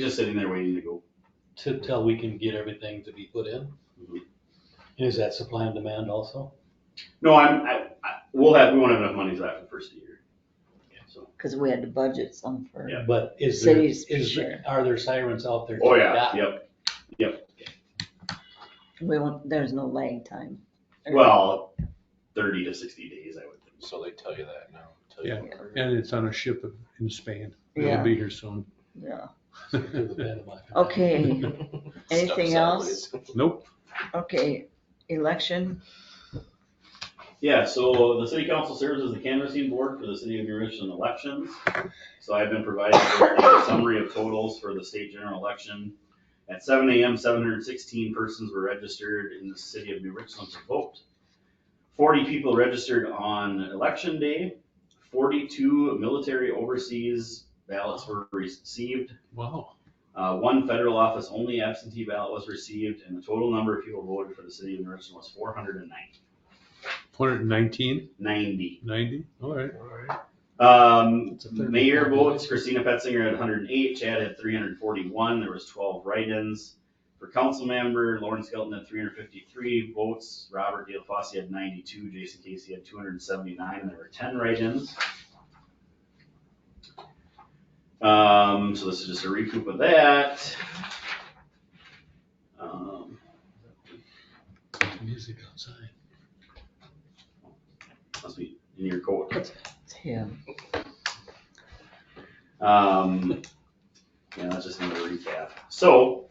just sitting there waiting to go. to, till we can get everything to be put in? Mm-hmm. Mhm. Is that supply and demand also? No, I'm, I, I, we'll have, we won't have enough money left for the first of the year. So, Cause we had to budget some for, Yeah. But is there, Cities, is, sure. are there sirens out there? to oh be yeah, got? yep. we won't, there's no lag time. Well, thirty to sixty days, I would think. So they tell you that now. tell you Yeah. when it And it's on a ship in Spain. Yeah. It'll be here soon. Yeah, To the bed of my- okay, hurts. Anything Stuck else? sideways. Nope. okay, election, Yeah, so the city council serves as the canvassing board for the city of New Richmond elections. So I've been provided a summary of totals for the state general election. At seven AM, seven hundred and sixteen persons were registered in the city of New Richmond to vote. Forty people registered on election day. Forty-two military overseas ballots were received. Wow. Uh, one federal office only absentee ballot was received and the total number of people voted for the city of New Richmond was four hundred and ninety. 119, 90? All right. Um, It's a third mayor vote. votes, Christina Petzinger had hundred and eight, Chad had three hundred and forty-one, there was twelve write-ins. For council member, Lauren Skelton had three hundred and fifty-three votes, Robert Dale Fossey had ninety-two, Jason Casey had two hundred and seventy-nine, and there were ten write-ins. Um, so this is just a recoup of that. Um, Music outside. must be in your coat. it's him, Um, yeah, that's just another recap. So,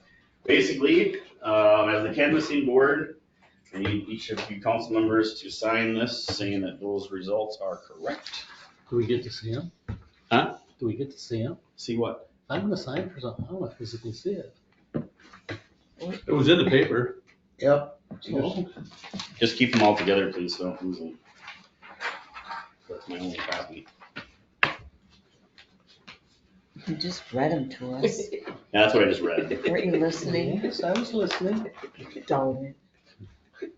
basically, um, as the canvassing board, I need each of you council members to sign this saying that those results are correct. Do we get to see him? Huh? Do we get to see him? See what? I'm gonna sign for something, I wanna physically see it. It was in the paper. Yep. Just keep them all together, please, so don't lose them. That's my only copy. you just read them to us, Yeah, That's what I just read. were you listening? Yes, I was listening. Don't it.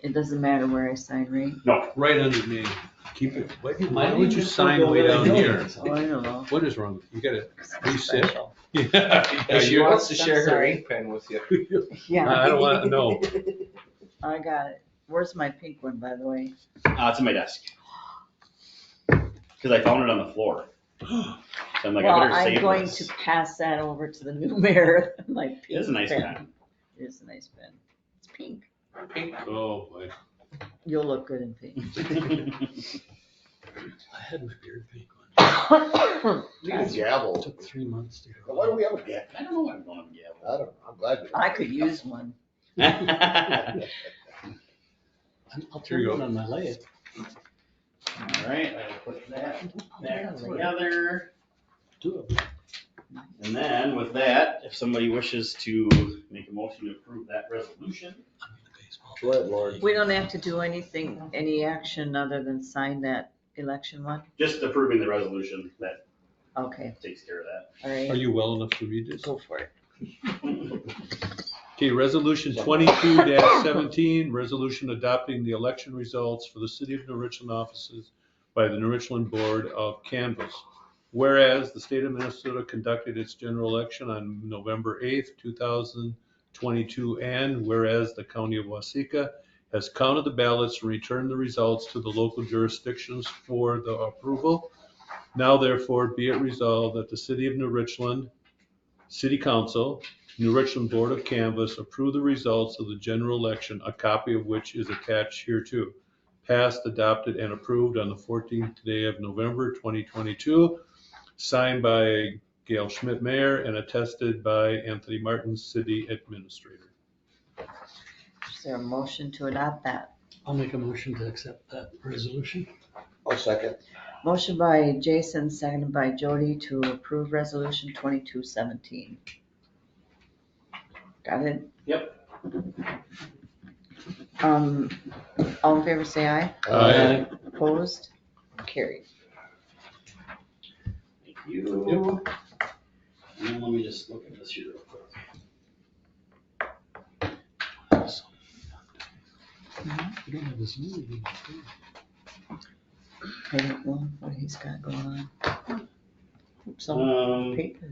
It doesn't matter where I sign, right? Right under me. Keep it. Why my why would name you is sign Google way that I down know here? it's Oh, I don't know. What is wrong? You gotta reset. Special. And she Yeah. wants to I'm share her sorry. ink pen with you. Yeah, I don't want, no. I got it, where's my pink one, by the way? Uh, it's on my desk. Cause I found it on the floor. So I'm like, I better save this. Well, I'm going to pass that over to the new mayor, my pink It is a nice pen. pen. It is a nice pen, it's pink, Oh, boy. you'll look good in pink. I had my beard pink one, Need a it gavel. took three months to Now, Why do grow. we have a gavel? I don't know why I'm going to gavel. I don't know. I'm glad we. don't. I could use one. All I'm- I'll Here turn you it go. on my leg. right, I'll put that back together. Do it. And then with that, if somebody wishes to make a motion to approve that resolution. I'm in the baseball. Go ahead, Lori. We don't have to do anything, any action other than sign that election one? Just approving the resolution, that Okay, takes care of that. all Are right, you well enough to read this? go for it. Okay, resolution twenty-two seventeen, resolution adopting the election results for the city of New Richland offices by the New Richland Board of Canvas. Whereas the state of Minnesota conducted its general election on November eighth, two thousand twenty-two, and whereas the county of Waseca has counted the ballots and returned the results to the local jurisdictions for the approval. Now therefore be it resolved that the city of New Richland, city council, New Richland Board of Canvas approve the results of the general election, a copy of which is attached hereto. Passed, adopted, and approved on the 14th day of November 2022, signed by Gail Schmidt, Mayor, and attested by Anthony Martin, City Administrator. Is there a motion to adopt that? I'll make a motion to accept that resolution. I'll second. Motion by Jason, seconded by Jody to approve resolution twenty-two seventeen. Got it? Yep. Um, all in favor, say aye. Aye. Opposed? Carried. Thank you. And let me just look at this here real quick. You don't have this new one, do you? I don't know what he's got going on. Hope Some Um, paper.